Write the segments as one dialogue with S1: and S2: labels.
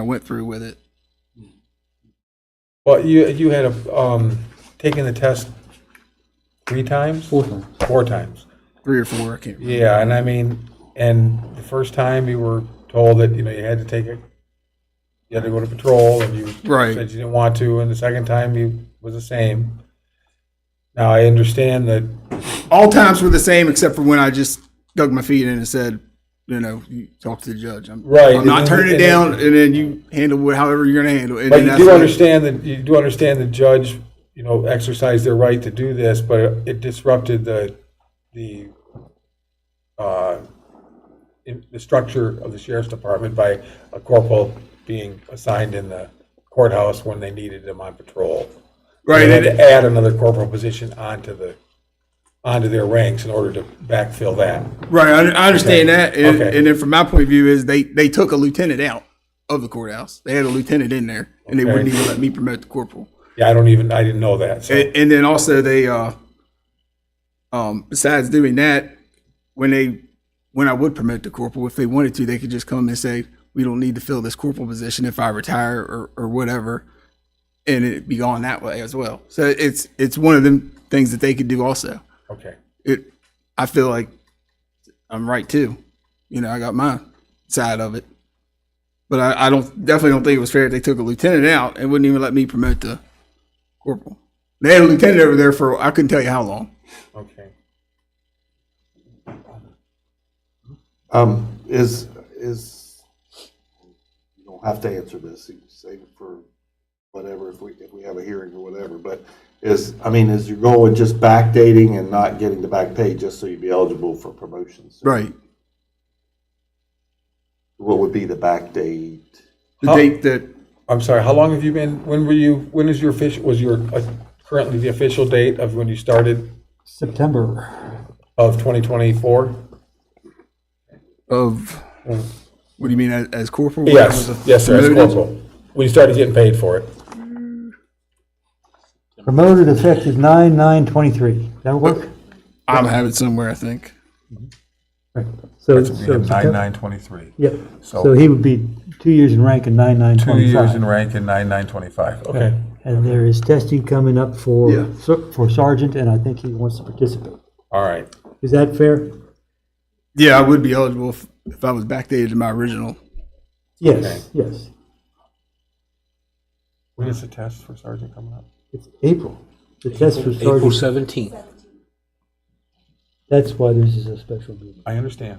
S1: I went through with it.
S2: Well, you, you had, a, um, taken the test three times? Four times. Four times.
S1: Three or four, I can't remember.
S2: Yeah, and I mean, and the first time you were told that, you know, you had to take it, you had to go to patrol, and you
S1: Right.
S2: said you didn't want to, and the second time you was the same. Now, I understand that,
S1: All times were the same except for when I just dug my feet in and said, you know, you talk to the judge. I'm,
S2: Right,
S1: I'm not
S2: and-
S1: turning it
S2: and-
S1: down, and then you handle it however you're going to handle it. And
S2: but
S1: then
S2: you
S1: that's
S2: do
S1: what-
S2: understand that, you do understand the judge, you know, exercised their right to do this, but it disrupted the, the, uh, in- the structure of the sheriff's department by a corporal being assigned in the courthouse when they needed him on patrol.
S1: Right,
S2: They had
S1: and-
S2: to add another corporal position onto the, onto their ranks in order to backfill that.
S1: Right, I, I understand
S2: Okay.
S1: that, and,
S2: Okay.
S1: and then from my point of view is they they took a lieutenant out of the courthouse. They had a lieutenant in there, and they
S2: Okay.
S1: wouldn't even let me promote the corporal.
S2: Yeah, I don't even, I didn't know that, so.
S1: And, and then also they, uh, um, besides doing that, when they when I would promote the corporal, if they wanted to, they could just come and say, "We don't need to fill this corporal position if I retire or or whatever," and it'd be gone that way as well. So it's it's one of them things that they could do also.
S2: Okay.
S1: It, I feel like I'm right too. You know, I got my side of it, but I, I don't definitely don't think it was fair. that They took a lieutenant out and wouldn't even let me promote the corporal. They had a lieutenant over there for I couldn't tell you how long.
S2: Okay.
S3: Um, is, is, you don't have to answer this, you can save it for whatever, if we, if we have a hearing or whatever, but is, I mean, is your goal with just backdating and not getting the back pay, just so you'd be eligible for promotions?
S1: Right.
S3: What would be the backdate?
S1: The
S2: How-
S1: date that
S2: I'm sorry, how long have you been, when were you, when is your official, was your, uh, currently the official date of when you started
S4: September.
S2: of 2024?
S1: of what do you mean as, as corporal?
S2: Yes, yes, sir, as
S1: Promoted?
S2: corporal. When you started getting paid for it.
S4: Promoted effective nine, nine, twenty-three. That work?
S1: I'm having somewhere I think.
S4: Right. So, so.
S5: Nine
S4: Septem-
S5: nine twenty-three.
S4: Yep.
S5: So-
S4: So he would be two years in rank and nine, nine,
S5: Two years in
S4: twenty-five.
S5: rank and nine nine twenty-five.
S2: Okay,
S4: And there is testing coming up
S1: Yeah.
S4: for, ser- for sergeant, and I think he wants to participate.
S2: all right.
S4: Is that fair?
S1: Yeah, I would be eligible if, if I was backdated to my original.
S4: Yes, yes.
S2: When is the test for sergeant coming up?
S4: It's April. The test for
S6: April
S4: sergeant.
S6: 17th.
S4: That's why this is a special meeting.
S2: I understand.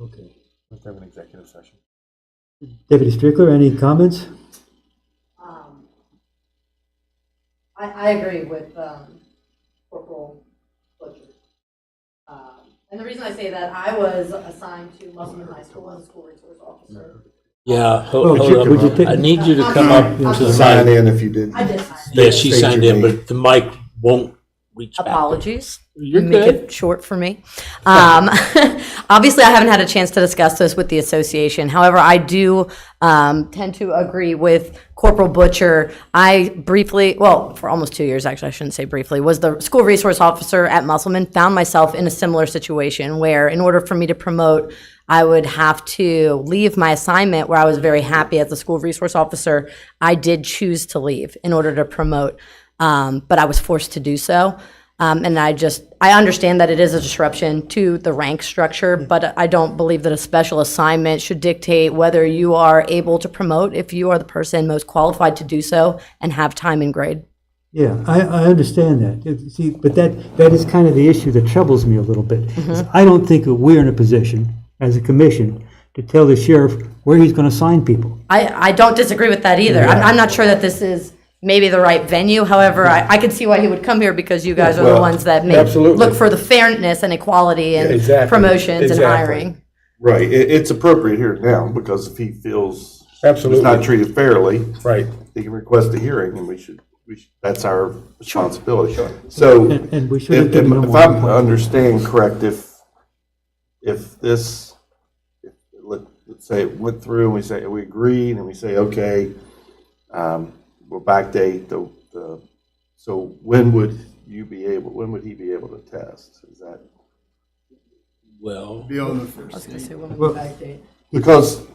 S4: Okay.
S2: Let's have an executive session.
S4: Deputy Strickler, any comments?
S7: um, I, I agree with um, Corporal Butcher. Um, And the reason I say that, I was assigned to Musselman High School as a school resource officer.
S6: Yeah,
S4: Oh,
S6: ho-
S4: would you-
S6: hold
S4: would you
S6: up.
S4: take-
S6: I need you to come up to the
S3: Sign
S6: mic.
S3: in if you did.
S7: I did sign.
S6: Yeah, she
S3: State your
S6: signed in,
S3: name.
S6: but the mic won't reach back.
S7: Apologies.
S6: You're
S7: Make
S6: good.
S7: it short for me. Um, obviously, I haven't had a chance to discuss this with the association. However, I do um, tend to agree with Corporal Butcher. I briefly, well, for almost two years, actually, I shouldn't say briefly, was the school resource officer at Musselman. Found myself in a similar situation where, in order for me to promote, I would have to leave my assignment where I was very happy as a school resource officer. I did choose to leave in order to promote, um, but I was forced to do so. Um, and I just, I understand that it is a disruption to the rank structure, but I don't believe that a special assignment should dictate whether you are able to promote if you are the person most qualified to do so and have time and grade.
S4: Yeah, I, I understand that. It- See, but that, that is kind of the issue that troubles me a little bit. is I don't think that we're in a position, as a commission, to tell the sheriff where he's going to sign people.
S7: I, I don't disagree with that either. I'm, I'm not sure that this is maybe the right venue. However, I, I could see why he would come here because you guys are the
S2: Well,
S7: ones that make,
S2: absolutely.
S7: look for the fairness and equality and
S2: Yeah, exactly,
S7: promotions and
S2: exactly.
S7: hiring.
S3: Right, it, it's appropriate here now, because if he feels he's not
S2: Absolutely,
S3: treated fairly,
S2: right.
S3: he can request a hearing, and we should, we should, that's our responsibility. So.
S4: And, and we should
S3: If,
S4: have
S3: if
S4: given him
S3: if
S4: one
S3: I'm
S4: point.
S3: understanding correct, if, if this, if, let, let's say it went through and we say, we agreed and we say, okay, um, we'll backdate the, the, so when would you be able, when would he be able to test? Is that?
S6: Well,
S1: Be on the first.
S7: I was gonna say, when we
S4: Well-
S7: backdate.
S3: Because